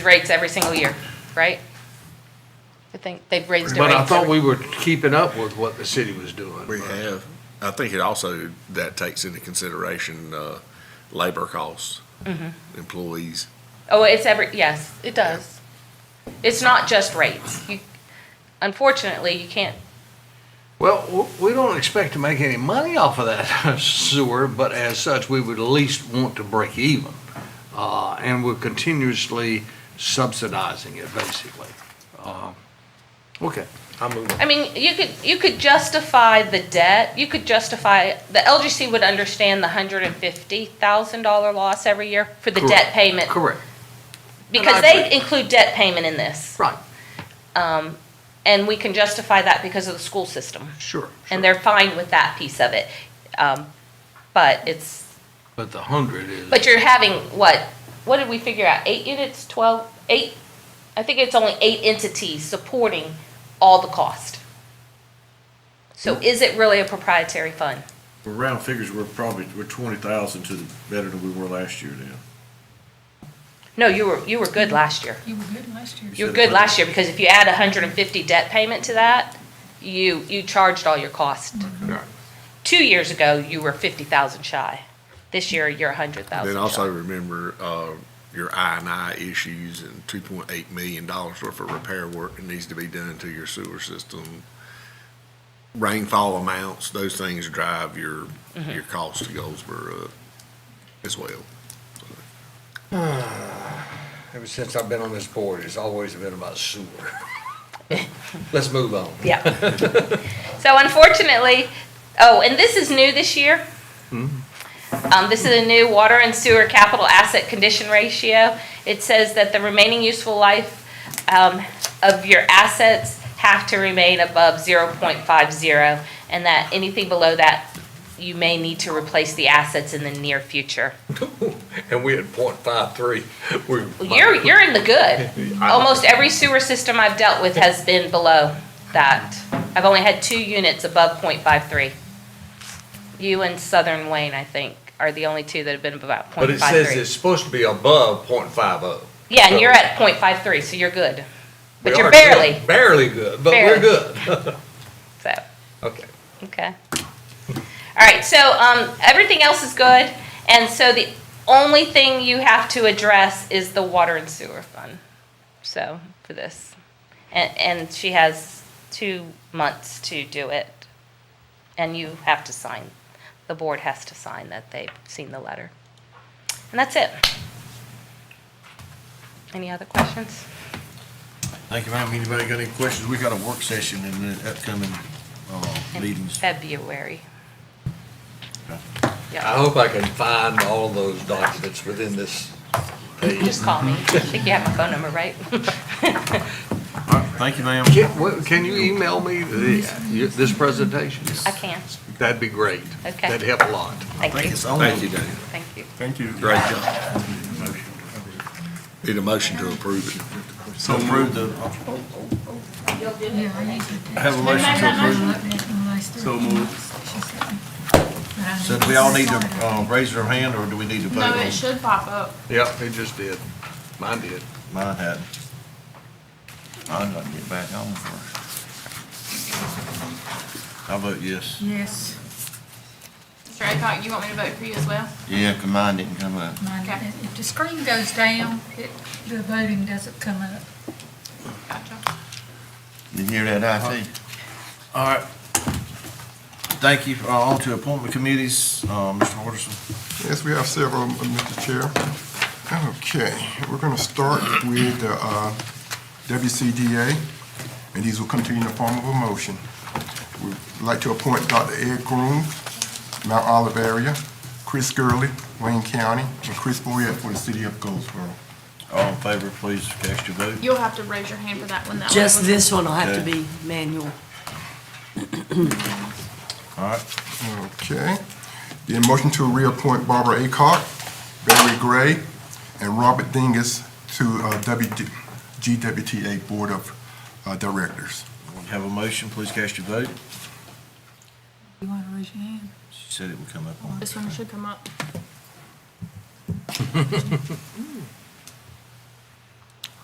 rates every single year, right? I think they've raised their But rates. I thought every- we were keeping up with what the city was doing. We have. I think it also, that takes into consideration, uh, labor costs, employees. Oh, it's every, yes, it does. It's not just rates. You, unfortunately, you can't, Well, w- we don't expect to make any money off of that sewer, but as such, we would at least want to break even. Uh, and we're continuously subsidizing it, basically. Um, Okay, I'm moving. I mean, you could, you could justify the debt, you could justify, the LGC would understand the hundred and fifty thousand dollar loss every year for the debt Correct. payment. Correct, Because they include debt payment in this. um, right, And we can justify that because of the school system. sure. And sure. they're fine with that piece of it. Um, But it's, But the hundred is. But you're having, what, what did we figure out, eight units, twelve, eight? I think it's only eight entities supporting all the cost. So Hmm. is it really a proprietary fund? Well, round figures, we're probably, we're twenty thousand to the, better than we were last year then. No, you were, you were good last year. You were good last year. You were good last year, because if you add a hundred and fifty debt payment to that, you, you charged all your cost. Right. Two years ago, you were fifty thousand shy. This year, you're a hundred thousand Then shy. also remember, uh, your I and I issues and two point eight million dollars worth of repair work that needs to be done to your sewer system. Rainfall amounts, those things drive your, your cost to Goldsboro up as well. Ever since I've been on this board, it's always been about sewer. Let's move on. Yeah. So unfortunately, oh, and this is new this year. Um, this is a new water and sewer capital asset condition ratio. It says that the remaining useful life, um, of your assets have to remain above zero point five zero, and that anything below that, you may need to replace the assets in the near future. And we had point five three. You're, you're in the good. Almost every sewer system I've dealt with has been below that. I've only had two units above .53. You and Southern Wayne, I think, are the only two that have been about .53. But it says it's supposed to be above oh. .50. Yeah, and you're at .53, so you're good. But you're barely, Barely good, but Barely. we're good. so, Okay. okay. All right, so, um, everything else is good, and so the only thing you have to address is the water and sewer fund, so, for this. And, and she has two months to do it. And you have to sign, the board has to sign that they've seen the letter. And that's it. Any other questions? Thank you, ma'am. Anybody got any questions? We got a work session in the upcoming, uh, In meetings. February. I Yeah, hope I can find all those documents within this page. just call me. I think you have my phone number, right? All right, thank you, ma'am. Can, what- can you email me the, you- this presentation? I can. That'd be great. Okay. That'd help a lot. Thank Thank you, you so much. Thank you, Daniel. thank you. Thank you. Great job. Need a motion to approve it. So approve the, uh, Yeah, I need to. I have a motion to approve. So moved. So do we all need to, uh, raise our hand or do we need to vote No, on? it should pop up. Yeah, it just did. Mine did. Mine hadn't. Mine got to get back on first. I vote yes. Yes. Mr. Aycock, you want me to vote for you as well? Yeah, 'cause mine didn't come up. mine didn't. If the screen goes down, it, the voting doesn't come up. Gotcha. You hear that, IT? All right. Thank you. Uh, On to appointment committees, uh, Mr. Watterson. Yes, we have several, uh, Mr. Chair. Okay, we're going to start with the uh, WCDA, and these will continue in the form of a motion. We'd like to appoint Dr. Ed Groom, Mount Olive area, Chris Gurley, Wayne County, and Chris Boyette for the city of Goldsboro. All in favor, please cast your vote. You'll have to raise your hand for that one. That way Just we'll- this one will have to Okay. be manual. All right. Okay. Then motion to reappoint Barbara Acock, Barry Gray, and Robert Dingus to uh, WD GWTA Board of uh, Directors. We Have a motion, please cast your vote. You want to raise your hand? She said it would come up on. This one should come up.